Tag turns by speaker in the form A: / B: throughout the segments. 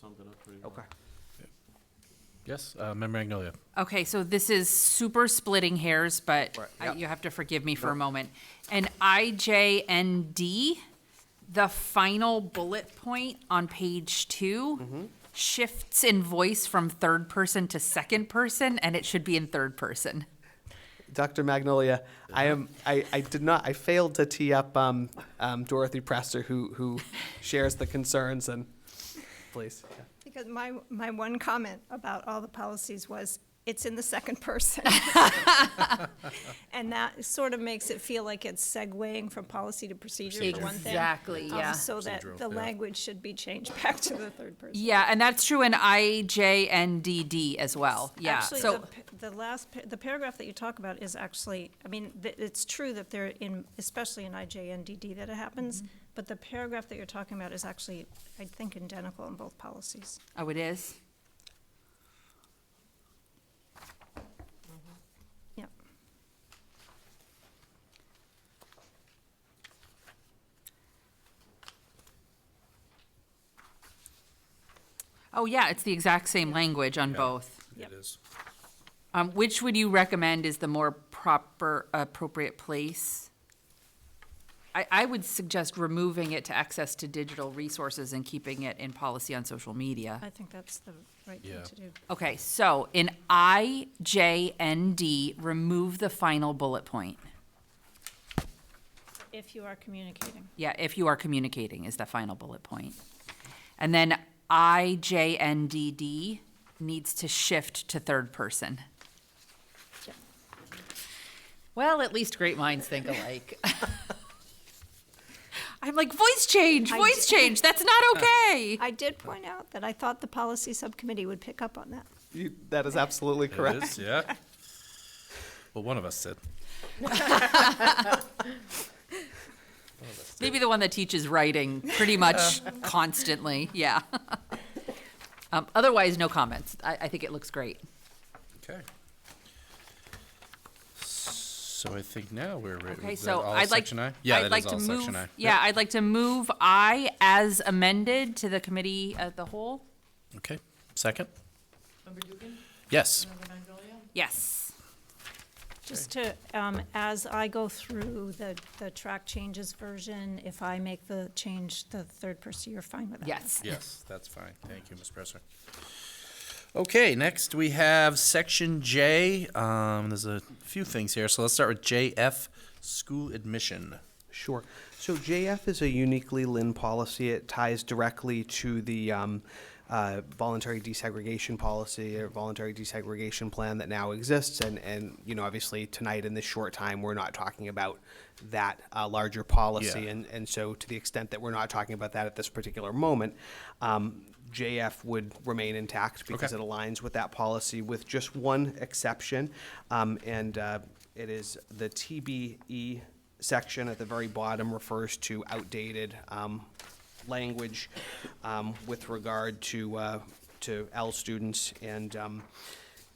A: summed it up pretty well.
B: Okay.
C: Yes, uh, Member Magnolia.
D: Okay, so this is super splitting hairs, but
B: Right,
D: I-
B: yeah.
D: you have to forgive me for a moment. And IJND, the final bullet point on page two shifts in voice from third person to second person, and it should be in third person.
B: Dr. Magnolia, I am. I, I did not. I failed to tee up um, um, Dorothy Prester, who who shares the concerns and. Please. yeah.
E: Because my, my one comment about all the policies was, it's in the second person. And that sort of makes it feel like it's segueing from policy to procedure for one thing.
D: Exactly,
E: um,
D: yeah.
E: So that the language should be changed back to the third person.
D: Yeah, and that's true in IJNDD as well, yeah,
E: Actually,
D: so.
E: the p- The last, pa- the paragraph that you talk about is actually, I mean, th- it's true that they're in, especially in IJNDD that it
D: Mm-hmm.
E: happens, but the paragraph that you're talking about is actually, I think, identical in both policies.
D: Oh, it is?
E: Yep.
D: Oh, yeah, it's the exact same language on both.
E: Yep.
C: is.
D: Um, which would you recommend is the more proper, appropriate place? I, I would suggest removing it to access to digital resources and keeping it in policy on social media.
E: I think that's the right thing
C: Yeah.
E: to do.
D: Okay, so in I, J, and D, remove the final bullet point.
E: If you are communicating.
D: Yeah, if you are communicating is the final bullet point. And then I, J, N, D, D needs to shift to third person.
E: Yep.
D: Well, at least great minds think alike. I'm like, voice change,
E: I
D: voice
E: d-
D: change, that's not okay.
E: I did point out that I thought the policy subcommittee would pick up on that.
B: You, that is absolutely
C: It
B: correct.
C: is, yeah. Well, one of us did.
D: Maybe the one that teaches writing pretty much constantly, yeah. Um, Otherwise, no comments. I, I think it looks great.
C: Okay. So I think now we're ready.
D: Okay,
C: Is that
D: so
C: all
D: I'd like,
C: Section I? Yeah,
D: I'd
C: that
D: like
C: is
D: to
C: all Section I.
D: move, yeah, I'd like to move I as amended to the committee of the whole.
C: Yep. Okay, second? Yes,
D: Yes.
E: Just to, um, as I go through the, the track changes version, if I make the change, the third person, you're fine with that?
D: Yes.
C: yes, that's fine. Thank you, Ms. Presser. Okay, next we have Section J. Um, there's a few things here, so let's start with JF, school admission.
B: Sure. So JF is a uniquely Lynn policy. It ties directly to the um, uh, voluntary desegregation policy or voluntary desegregation plan that now exists. And, and, you know, obviously tonight in this short time, we're not talking about that uh, larger policy.
C: Yeah.
B: And, and so to the extent that we're not talking about that at this particular moment, um, JF would remain intact because it
C: Okay.
B: aligns with that policy with just one exception. Um, and uh, it is the TBE section at the very bottom refers to outdated um, language um, with regard to uh, to L students and um,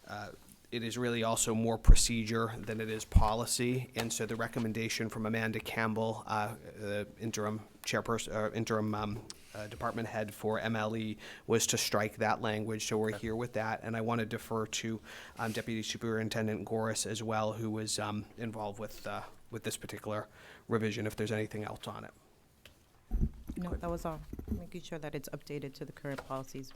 B: uh, it is really also more procedure than it is policy. And so the recommendation from Amanda Campbell, uh, the interim chairperson, or interim um, uh, department head for MLE, was to strike that language. So we're here with that. And I want to defer to um, Deputy Superintendent Goris as well, who was um, involved with, uh, with this particular revision, if there's anything else on it.
F: No, that was all. Making sure that it's updated to the current policies.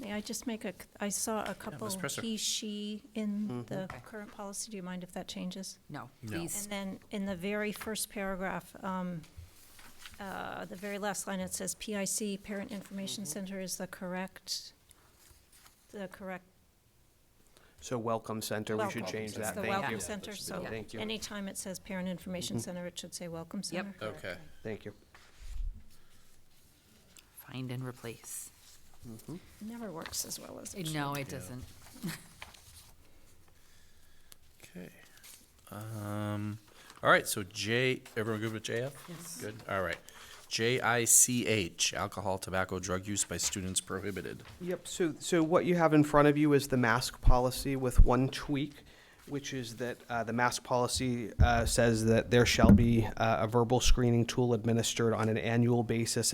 E: May I just make a, c- I saw a couple
C: Presser.
E: he, she in the current policy. Do you mind if that changes?
D: No, please.
E: And then in the very first paragraph, um, uh, the very last line, it says PIC, Parent Information Center is the correct, the correct
B: So Welcome Center, we should
E: Welcome.
B: change
E: It's
B: that.
E: the
B: Thank you.
E: Welcome Center, so
B: Thank you.
E: anytime it says Parent Information Center, it should say Welcome
D: Yep.
E: Center.
C: Okay.
B: Thank you.
D: Find and replace.
E: Never works as well as it should.
D: No, it
C: Yeah.
D: doesn't.
C: Okay. Um, all right, so J, everyone good with JF? Yes. Good, all right. JICH, alcohol, tobacco, drug use by students prohibited.
B: Yep, so, so what you have in front of you is the mask policy with one tweak, which is that uh, the mask policy uh, says that there shall be uh, a verbal screening tool administered on an annual basis